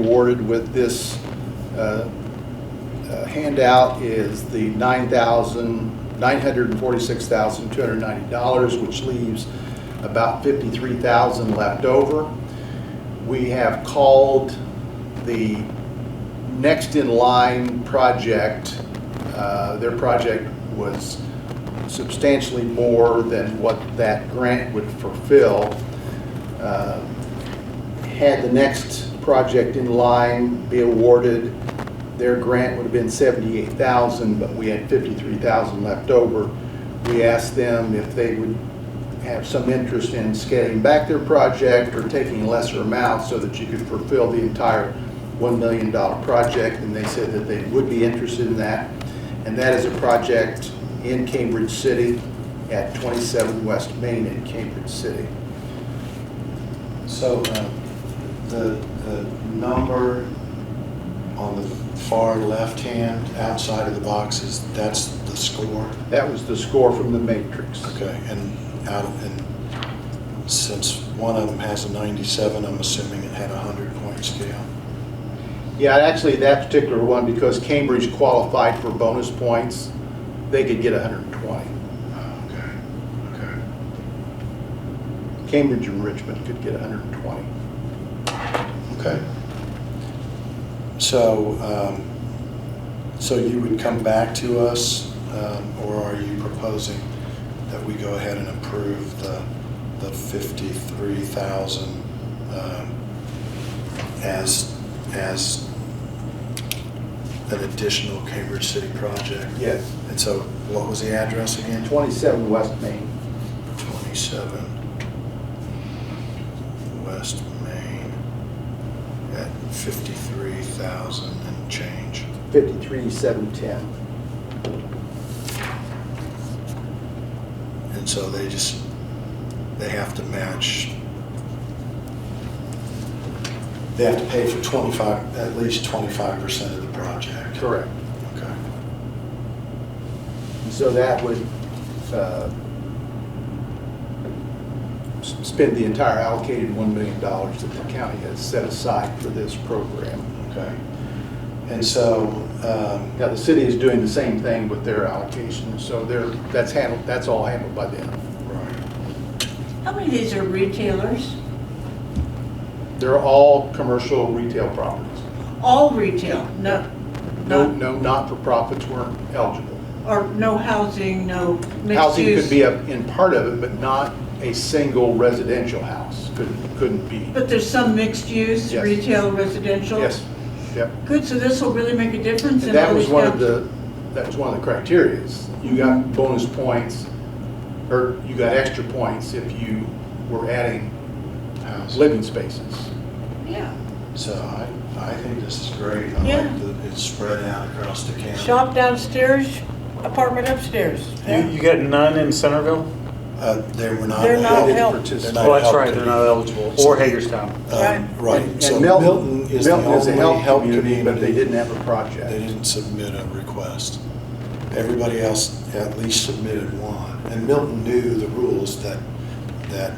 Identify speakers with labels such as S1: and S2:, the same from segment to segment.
S1: supported with this uh, uh, handout is the nine thousand, nine hundred and forty-six thousand, two hundred and ninety dollars, which leaves about fifty-three thousand left over. We have called the next in line project, uh, their project was substantially more than what that grant would fulfill. Uh, had the next project in line be awarded, their grant would have been seventy-eight thousand, but we had fifty-three thousand left over. We asked them if they would have some interest in scaling back their project or taking lesser amounts so that you could fulfill the entire one million dollar project, and they said that they would be interested in that. And that is a project in Cambridge City at twenty-seven West Main in Cambridge City.
S2: So uh, the, the number on the far left-hand outside of the boxes, that's the score?
S1: That was the score from the Matrix.
S2: Okay, and out, and since one of them has a 97, I'm assuming it had a 100-point scale?
S1: Yeah, actually, that particular one, because Cambridge qualified for bonus points, they could get 120.
S2: Okay, Oh, okay.
S1: Cambridge and Richmond could get 120.
S2: Okay. So, um, so you would come back to us, um, or are you proposing that we go ahead and approve the, the fifty-three thousand um, as, as an additional Cambridge City project?
S1: Yes.
S2: And so what was the address again?
S1: 27 West Main.
S2: 27 West Main at 53,000 and change.
S1: 53710.
S2: And so they just, they have to match, they have to pay for 25, at least 25% of the project.
S1: Correct.
S2: Okay.
S1: So that would uh, s- spend the entire allocated $1 million that the county has set aside for this program.
S2: Okay. And so, um,
S1: Now, the city is doing the same thing with their allocation, so they're, that's handled, that's all handled by them.
S2: right,
S3: How many of these are retailers?
S1: They're all commercial retail properties.
S3: All retail, no,
S1: No,
S3: no,
S1: no, not-for-profits weren't eligible.
S3: or no housing, no mixed
S1: Housing could be
S3: use?
S1: a- in part of it, but not a single residential house, couldn't, couldn't be.
S3: But there's some mixed use,
S1: Yes.
S3: retail, residential?
S1: Yes, yep.
S3: Good, so this will really make a difference
S1: And
S3: in all
S1: that was
S3: these
S1: one of
S3: towns?
S1: the, that was one of the criterias. You
S3: Mm-hmm.
S1: got bonus points, or you got extra points if you were adding
S2: house.
S1: living spaces.
S3: Yeah,
S2: So I, I think this is great. I
S3: Yeah.
S2: like that it's spread out across the county.
S3: shop downstairs, apartment upstairs.
S4: You, you got none in Centerville?
S2: Uh, They were not.
S3: They're not
S2: eligible.
S3: helped.
S2: They're not
S4: Well, that's
S2: helped.
S4: right, they're not eligible, or Hagerstown.
S2: Um, Right,
S1: And-
S2: so
S1: and Milton-
S2: Milton is the
S1: Milton a
S2: only help community.
S1: But they didn't have a
S2: They
S1: project.
S2: didn't submit a request. Everybody else at least submitted one. And Milton knew the rules that, that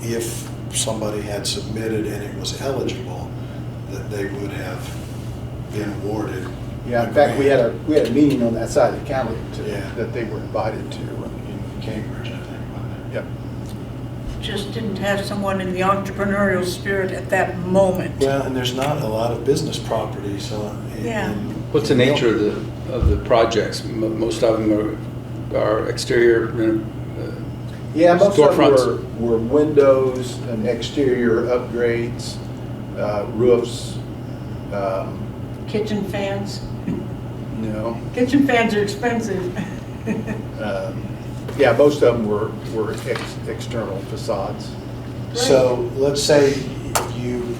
S2: if somebody had submitted and it was eligible, that they would have been awarded.
S1: Yeah, in fact, we had
S2: grant
S1: a, we had a meeting on that side of the county to-
S2: Yeah.
S1: that they were invited to.
S2: In Cambridge, I think, wasn't it?
S1: Yep.
S3: Just didn't have someone in the entrepreneurial spirit at that moment.
S2: Well, and there's not a lot of business properties on. in-
S3: Yeah.
S2: in-
S5: What's the nature of the, of the projects? Mo- Most of them are, are exterior, uh,
S1: Yeah, most of
S5: Storefronts.
S1: them were, were windows and exterior upgrades, uh, roofs, um,
S3: Kitchen fans,
S1: you know.
S3: kitchen fans are expensive.
S1: um, Yeah, most of them were, were ex- external facades.
S2: So let's say you,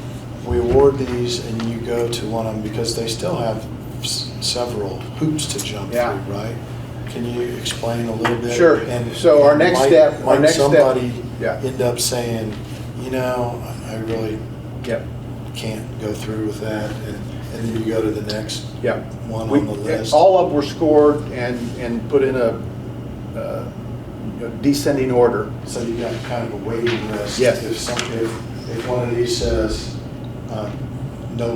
S2: we award these and you go to one of them because they still have s- several hoops to jump through,
S1: Yeah.
S2: right? Can you explain a little bit?
S1: Sure.
S2: And-
S1: So our next
S2: might-
S1: step- our
S2: Might
S1: next step-
S2: somebody
S1: Yeah.
S2: end up saying, you know, I I really
S1: Yep,
S2: can't go through with that, and and then you go to the next
S1: yep.
S2: one
S1: We- eh,
S2: on the list?
S1: All of them were scored and, and put in a uh, you know, descending order.
S2: So you got kind of a waiting list.
S1: Yes.
S2: If some, if, if one of these says, um,